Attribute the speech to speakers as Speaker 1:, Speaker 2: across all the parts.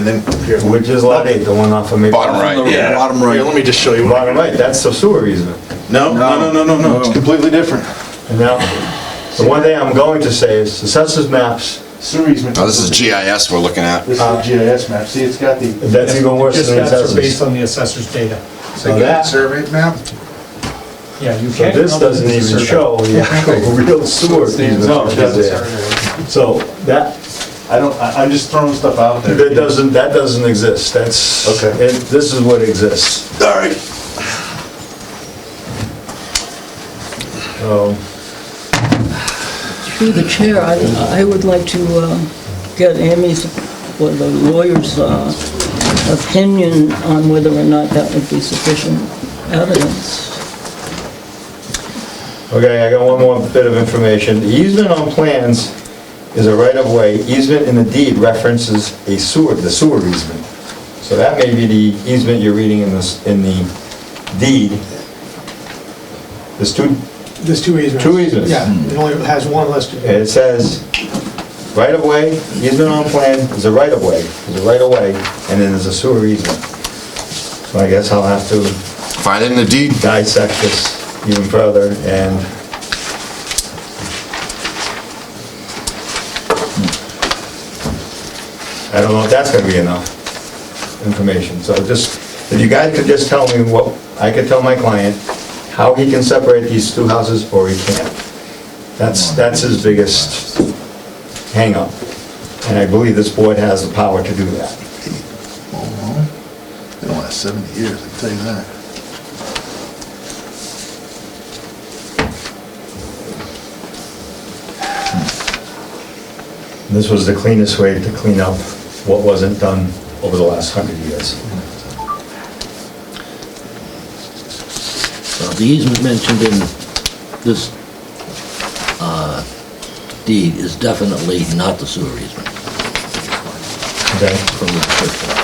Speaker 1: And then, here,
Speaker 2: Which is lot eight, the one off of Maple.
Speaker 3: Bottom right, yeah.
Speaker 4: Bottom right.
Speaker 3: Here, let me just show you. what-
Speaker 2: Bottom right, that's the sewer easement.
Speaker 3: No, no, no, no, no, no, it's completely different.
Speaker 2: And now, the one thing I'm going to say is, the census maps,
Speaker 4: Sewer easement.
Speaker 5: Oh,
Speaker 3: Now, this is GIS we're looking at.
Speaker 4: This is the GIS map. See, it's got the,
Speaker 2: that's even worse
Speaker 6: Just
Speaker 2: than the
Speaker 6: that's based
Speaker 2: census.
Speaker 6: on the assessor's data.
Speaker 2: So that, so
Speaker 5: surveyed map?
Speaker 6: Yeah, you can't.
Speaker 2: this doesn't even show the actual real sewer easement
Speaker 4: No, it
Speaker 2: that's
Speaker 4: doesn't.
Speaker 2: there. So that,
Speaker 4: I don't, I- I'm just throwing stuff out there.
Speaker 2: that doesn't, that doesn't exist, that's,
Speaker 4: Okay.
Speaker 2: and this is what exists.
Speaker 3: All right.
Speaker 2: Um,
Speaker 7: Through the chair, I, I would like to uh, get Amy's, or the lawyer's uh, opinion on whether or not that would be sufficient evidence.
Speaker 2: Okay, I got one more bit of information. The easement on plans is a right-of-way. Easement in the deed references a sewer, the sewer easement. So that may be the easement you're reading in this, in the deed. There's two,
Speaker 6: There's two easements.
Speaker 2: Two easements.
Speaker 6: Yeah, it only has one listed.
Speaker 2: it says, right-of-way, easement on plan is a right-of-way, is a right-of-way, and then there's a sewer easement. So I guess I'll have to
Speaker 3: Find it in the deed.
Speaker 2: dissect this even further and I don't know if that's gonna be enough information, so just, if you guys could just tell me what, I could tell my client how he can separate these two houses or he can't. That's, that's his biggest hangup, and I believe this board has the power to do that.
Speaker 5: They don't last 70 years, I can tell you that.
Speaker 2: This was the cleanest way to clean up what wasn't done over the last hundred years.
Speaker 8: Well, the easement mentioned in this uh, deed is definitely not the sewer easement
Speaker 2: Okay?
Speaker 8: from the description.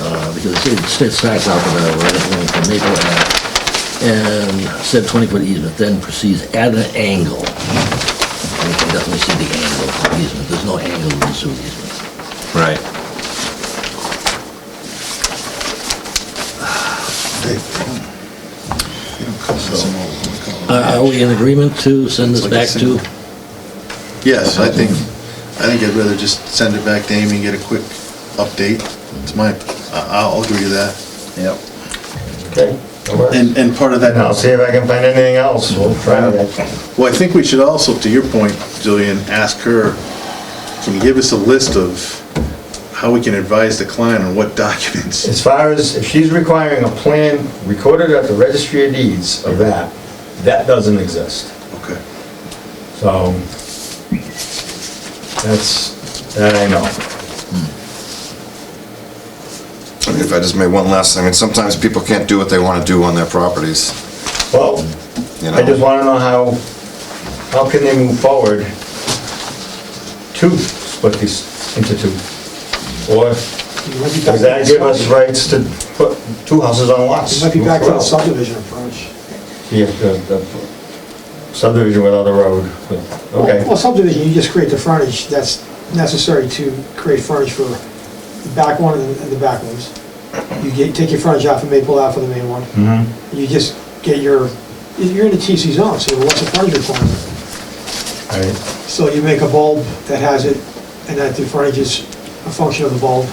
Speaker 8: Uh, Because it st- starts out with a right of way from Maple Ave and said 20-foot easement, then proceeds at an angle. And you can definitely see the angle of the easement. There's no angle in the sewer easement.
Speaker 3: Right.
Speaker 5: They- they don't- they don't call this an old one, they call it-
Speaker 8: Are are we in agreement to send this
Speaker 5: It's like a
Speaker 8: back to?
Speaker 5: single- Yes, I think, I think I'd rather just send it back to Amy and get a quick update. It's my, I- I'll agree to that. Yep.
Speaker 2: Okay.
Speaker 5: And, and part of that.
Speaker 2: And I'll see if I can find anything else, we'll try that.
Speaker 5: Well, I think we should also, to your point, Jillian, ask her, can you give us a list of how we can advise the client on what documents?
Speaker 2: As far as, if she's requiring a plan recorded at the registry of deeds of that, that doesn't exist.
Speaker 5: Okay.
Speaker 2: So, that's, that I know.
Speaker 3: I mean, If I just made one last, I mean, sometimes people can't do what they want to do on their properties,
Speaker 2: Well,
Speaker 3: you know?
Speaker 2: I just wanna know how, how can they move forward to split these into two? Or does that give us rights to put two houses on lots?
Speaker 6: It might be back to the
Speaker 2: Well,
Speaker 6: subdivision approach.
Speaker 2: Yeah, the the subdivision without a road, but, okay.
Speaker 6: Well, subdivision, you just create the frontage that's necessary to create frontage for the back one and the back ones. You get, take your frontage off of Maple Ave for the main one.
Speaker 2: Mhm.
Speaker 6: You just get your, you're in a TC zone, so what's the frontage requirement?
Speaker 2: All right,
Speaker 6: So you make a bulb that has it, and that the frontage is a function of the bulb.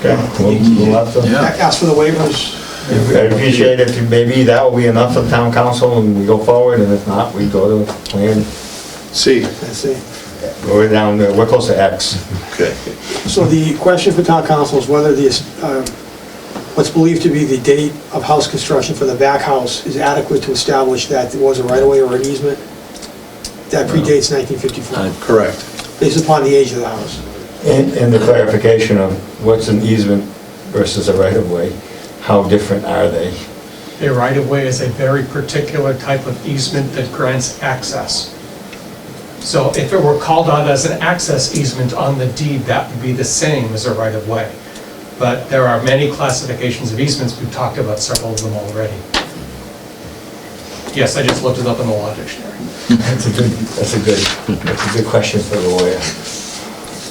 Speaker 2: okay, we'll- we'll have to-
Speaker 6: Ask for the waivers.
Speaker 2: I appreciate if maybe that will be enough for town council and we go forward, and if not, we go to plan,
Speaker 5: See,
Speaker 6: That's it.
Speaker 2: we're down, to- we're close to X.
Speaker 5: okay.
Speaker 6: So the question for town council is whether the, um, what's believed to be the date of house construction for the back house is adequate to establish that there was a right-of-way or an easement that predates 1954,
Speaker 5: Correct.
Speaker 6: based upon the age of the house.
Speaker 2: And, and the clarification of what's an easement versus a right-of-way, how different are they?
Speaker 9: A right-of-way is a very particular type of easement that grants access. So if it were called out as an access easement on the deed, that would be the same as a right-of-way. But there are many classifications of easements, we've talked about several of them already. Yes, I just looked it up in the law dictionary.
Speaker 2: That's a good, that's a good, that's a good question for the lawyer.